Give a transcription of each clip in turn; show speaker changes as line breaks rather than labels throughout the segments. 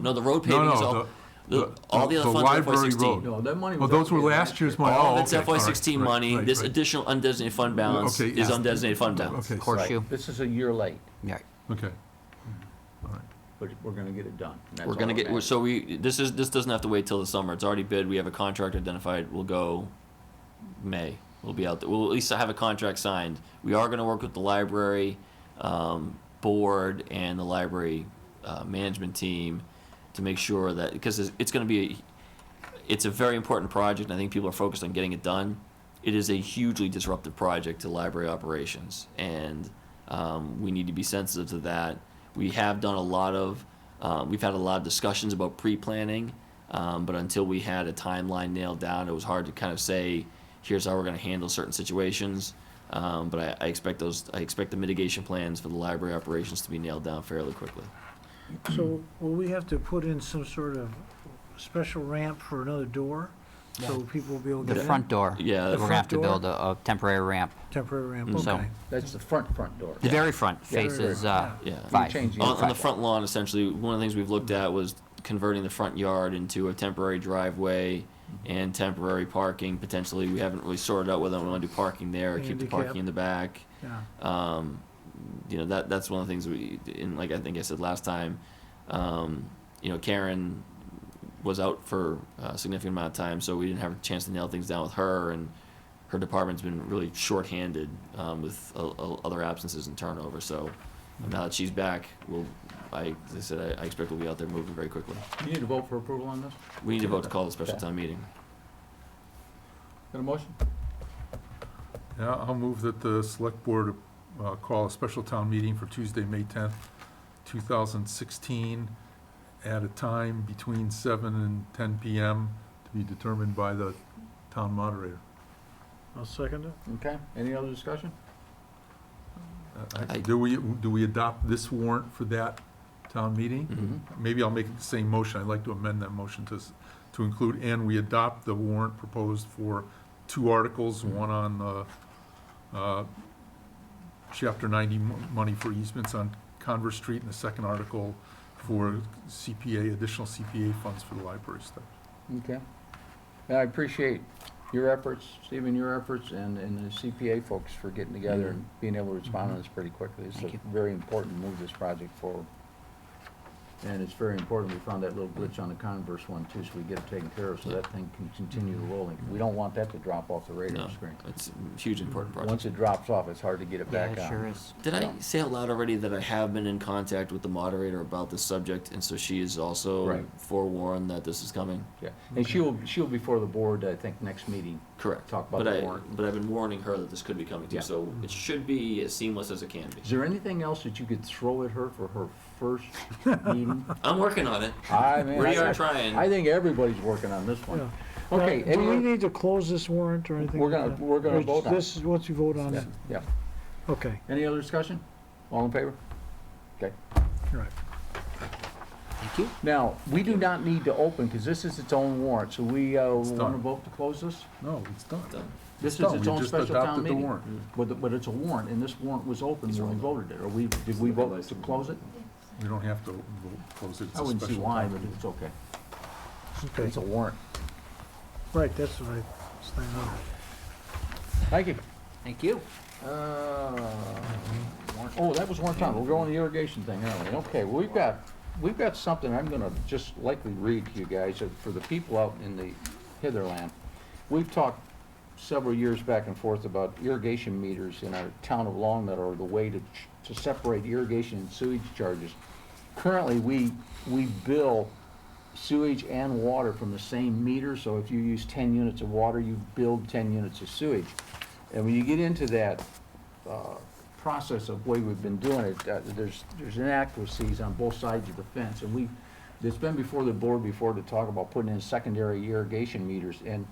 No, the road
No,
paving is all,
no, the,
the- all the
the
other funds are FY
library road.
sixteen.
No, that money
Well,
was
Oh, those were
allocated
last year's money.
All
Oh,
of it's
okay, all
FY
right,
sixteen
right,
money,
right,
this
right.
additional undesignated fund balance
Okay,
is
yeah.
undesignated fund balance.
Okay,
Horseshoe.
This is a year late,
Yeah.
okay.
but we're gonna get it done. and that's
We're
all
gonna
that
get, we're-
matters.
so we, this is, this doesn't have to wait till the summer, it's already bid, we have a contract identified, we'll go May, we'll be out, there. we'll at least have a contract signed. We are gonna work with the library, um, board and the library, uh, management team to make sure that, because it's, it's gonna be, it's a very important project, and I think people are focused on getting it done. It is a hugely disruptive project to library operations, and um, we need to be sensitive to that. We have done a lot of, uh, we've had a lot of discussions about pre-planning, um, but until we had a timeline nailed down, it was hard to kind of say, here's how we're going to handle certain situations. Um, but I, I expect those, I expect the mitigation plans for the library operations to be nailed down fairly quickly.
So will we have to put in some sort of special ramp for another door? So people will be able to
The
get in?
front door.
Yeah, The
We're gonna have to
front door.
build a, a temporary ramp.
Temporary ramp,
So-
okay.
That's the front, front door.
The very front
very
faces,
front,
uh,
yeah. Yeah.
five.
Change the
On, on the
Five.
front lawn, essentially, one of the things we've looked at was converting the front yard into a temporary driveway and temporary parking, potentially. We haven't really sorted out whether we want to do parking there or keep the parking
Handicap.
in the back.
Yeah,
Um, you know, that, that's one of the things we, and like I think I said last time, um, you know, Karen was out for a significant amount of time, so we didn't have a chance to nail things down with her, and her department's been really shorthanded um, with o- o- other absences and turnover. So now that she's back, we'll, I, as I said, I, I expect we'll be out there moving very quickly.
You need to vote for approval on this?
We need to vote to call a special town meeting.
Got a motion?
Yeah, I'll move that the select board uh, call a special town meeting for Tuesday, May 10th, 2016, at a time between 7 and 10 PM to be determined by the town moderator.
I'll second it.
Okay, any other discussion?
Uh, I-
I-
Do we, do we adopt this warrant for that town meeting?
Mm-hmm.
Mhm.
Maybe I'll make the same motion. I'd like to amend that motion to, s- to include, and we adopt the warrant proposed for two articles, one on the, uh, chapter ninety mo- money for easements on Converse Street, and the second article for CPA, additional CPA funds for the library stuff.
Mm-hmm, Okay. And I appreciate your efforts, Stephen, your efforts, and, and the CPA folks for getting together and
Mm-hmm.
being able to respond to this pretty quickly. It's
Thank
a
you.
very important to move this project forward. And it's very important, we found that little glitch on the Converse one too, so we get it taken care of, so that thing can continue rolling. We don't want that to drop off the radar
No,
screen.
it's a huge important project.
Mm-hmm. Once it drops off, it's hard to get it
Yeah,
back
it
on.
sure is.
Did I
Yeah.
say out loud already that I have been in contact with the moderator about this subject, and so she is also
Right.
forewarned that this is coming?
Yeah, and she'll, she'll be before the board, I think, next meeting.
Correct.
Talk about
but
the
I,
warrant.
But I've been warning her that this could be coming too,
Yeah.
so it should be as seamless as it can
Is
be.
there anything else that you could throw at her for her first meeting?
I'm working on it.
I mean,
We
I-
are
I-
trying.
I think everybody's working on this
Yeah.
one. Okay,
Now, Do we
any,
need to close this warrant or anything?
We're
like
gonna-
that?
we're gonna
Or
vote on it.
This is once you vote on
yeah,
it?
yeah.
Okay,
Any other discussion? All in favor? Okay.
right.
Thank you.
Now, we do not need to open, because this is its own warrant, so we, uh,
done.
want to vote to close this?
No, it's done.
Done.
This is
done.
its
We
own
just
special town
adopted the
meeting.
warrant.
But, the- but it's a warrant, and this warrant was open when we voted it, or we, did we vote to close it?
We don't have to vote- close it. It's a
I wouldn't see
special
why,
town
but
meeting.
it's okay.
Okay,
It's a warrant.
right, that's the right thing.
Thank you.
Thank you.
Uh, Oh, that was one time, we're going to the irrigation thing, aren't we? Okay, well, we've got, we've got something I'm gonna just likely read to you guys, uh, for the people out in the hitherland. We've talked several years back and forth about irrigation meters in our town of Long Meadow, or the way to, ch- to separate irrigation and sewage charges. Currently, we, we bill sewage and water from the same meter, so if you use ten units of water, you build ten units of sewage. And when you get into that, uh, process of way we've been doing it, uh, there's, there's inaccuracies on both sides of the fence, and we, it's been before the board before to talk about putting in secondary irrigation meters, and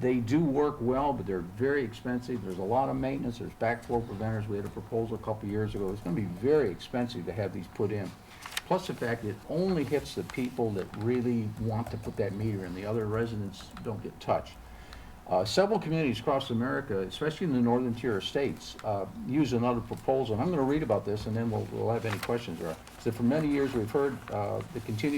they do work well, but they're very expensive, there's a lot of maintenance, there's backflow preventers, we had a proposal a couple years ago, it's gonna be very expensive to have these put in. Plus the fact it only hits the people that really want to put that meter in, the other residents don't get touched. Uh, Several communities across America, especially in the northern tier of states, uh, use another proposal, and I'm going to read about this, and then we'll we'll have any questions. That for many years, we've heard uh, the continued